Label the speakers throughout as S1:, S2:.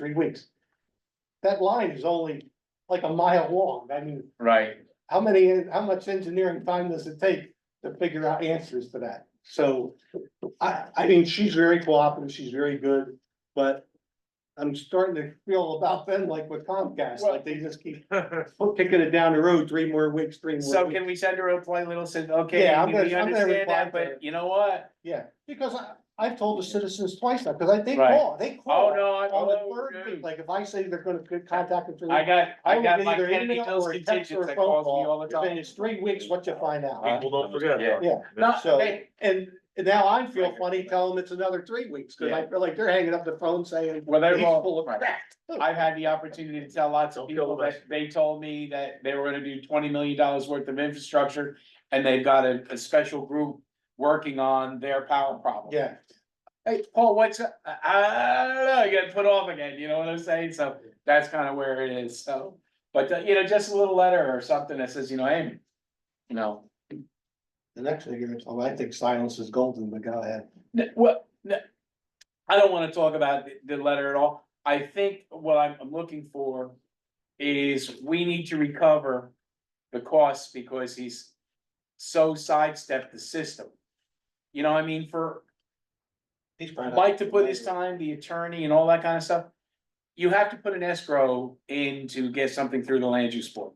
S1: three weeks. That line is only like a mile long. I mean,
S2: Right,
S1: how many, how much engineering time does it take to figure out answers to that? So I, I mean, she's very cooperative, she's very good, but I'm starting to feel about them like with Comcast, like they just keep kicking it down the road, three more weeks, three more
S2: so
S1: weeks.
S2: can we send her a polite little, says, okay,
S1: Yeah, I'm
S2: we
S1: gonna- I'm gonna
S2: understand
S1: reply
S2: that,
S1: to her.
S2: but you know what?
S1: Yeah, because I, I've told the citizens twice now, because I, they
S2: Right.
S1: call, they
S2: Oh,
S1: call
S2: no, I,
S1: on the
S2: oh,
S1: third week,
S2: dude.
S1: like if I say they're gonna contact them.
S2: I got,
S1: I
S2: I
S1: will
S2: got
S1: get
S2: my
S1: either an
S2: Kennedy
S1: email
S2: Hills
S1: or a text or
S2: contingents
S1: a
S2: that
S1: phone
S2: calls me
S1: call,
S2: all the
S1: and
S2: time.
S1: it's three weeks, what you find out.
S3: People don't forget.
S2: Yeah.
S1: Yeah.
S2: No,
S1: So-
S2: they-
S1: And and now I feel funny telling them it's another three weeks, cause I feel like they're hanging up the phone saying.
S2: Well, they're
S1: "He's
S2: all-
S1: full of
S2: right.
S1: crap."
S2: I've had the opportunity to tell lots of
S3: Don't kill
S2: people
S3: the
S2: that they told me that they were gonna do twenty million dollars worth of infrastructure. And they've got a, a special group working on their power problem.
S1: Yeah,
S2: Hey, Paul, what's, up? I, I don't know, you got put off again, you know what I'm saying? So that's kind of where it is, so. But, uh, you know, just a little letter or something that says, you know, Amy, you know,
S1: the next thing you're gonna tell me, I think silence is golden, but go ahead.
S2: N- Well, n- I don't wanna talk about the- the letter at all. I think what I'm, I'm looking for is we need to recover the costs because he's so sidestepped the system. You know, what I mean, for
S1: He's probably not-
S2: Mike to put his time, the attorney and all that kind of stuff, you have to put an escrow in to get something through the land use board.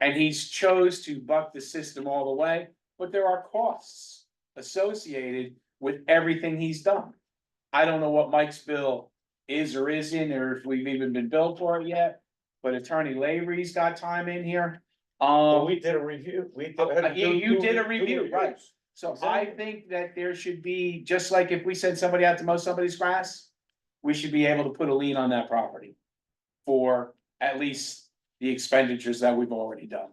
S2: And he's chose to buck the system all the way, but there are costs associated with everything he's done. I don't know what Mike's bill is or isn't, or if we've even been billed for it yet, but attorney Lavery's got time in here.
S3: Well,
S2: Um,
S3: we did a review, we
S1: Oh,
S3: did.
S2: Uh, you-
S3: two-
S2: you did a
S3: two
S2: review, right.
S3: reviews.
S2: so I
S3: Exactly.
S2: think that there should be, just like if we send somebody out to mow somebody's grass, we should be able to put a lien on that property for at least the expenditures that we've already done.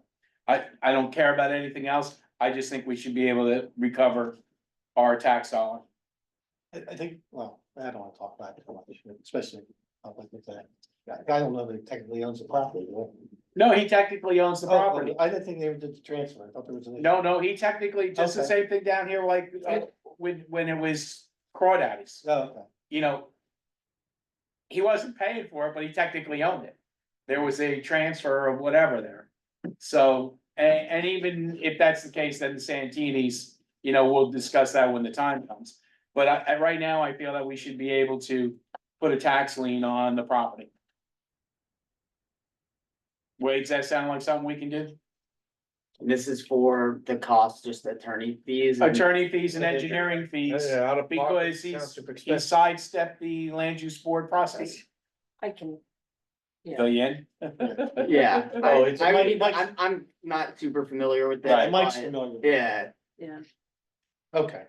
S2: I, I don't care about anything else. I just think we should be able to recover our tax dollar.
S1: I, I think, well, I don't wanna talk about it too much, especially uh, like with that. I I don't know that he technically owns the property. right?
S2: No, he technically owns the
S1: Oh,
S2: property.
S1: I didn't think they ever did the transfer. I thought there was. an issue.
S2: No, no, he technically, just the
S1: Okay.
S2: same thing down here like uh, when, when it was crawdaddies.
S1: Oh, okay.
S2: you know. He wasn't paying for it, but he technically owned it. There was a transfer of whatever there. So, and, and even if that's the case, then the Santini's, you know, we'll discuss that when the time comes. But I, I, right now, I feel that we should be able to put a tax lien on the property. Wade, does that sound like something we can do?
S4: This is for the cost, just attorney fees. and-
S2: Attorney fees and engineering fees,
S3: Yeah, out of pocket,
S2: because he's,
S3: township
S2: he
S3: expense.
S2: sidestepped the land use board process.
S5: I can,
S2: Fill you in?
S4: Yeah,
S1: Oh,
S4: I,
S1: it's-
S4: I
S1: Mike-
S4: mean,
S1: Mike's-
S4: I'm, I'm not super familiar with
S2: Right,
S4: that.
S1: Mike's
S4: but
S1: familiar.
S4: Yeah,
S5: yeah,
S1: Okay.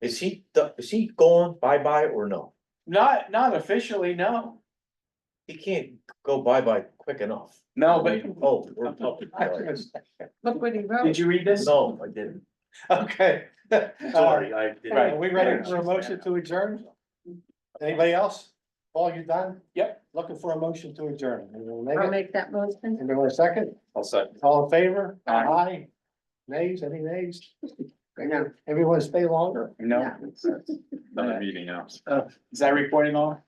S3: Is he, do- is he going bye-bye or no?
S2: Not, not officially, no,
S3: He can't go bye-bye quick enough.
S2: no, but
S3: Oh, we're public.
S5: look what he
S2: did
S5: wrote.
S2: you read this? Uh,
S3: No, I didn't.
S1: Okay.
S3: Sorry, I didn't.
S1: Right, are we ready for a motion to adjourn? Anybody else? Paul, you done?
S2: Yep.
S1: Looking for a motion to adjourn. Anyone make
S5: I'll
S1: it?
S5: make that motion.
S1: Anybody want a second?
S3: I'll second.
S1: All in favor?
S2: Aye.
S1: Nays, any nays?
S5: No.
S1: Everyone stay longer?
S2: No.
S3: Another meeting now.
S2: Is that recording on?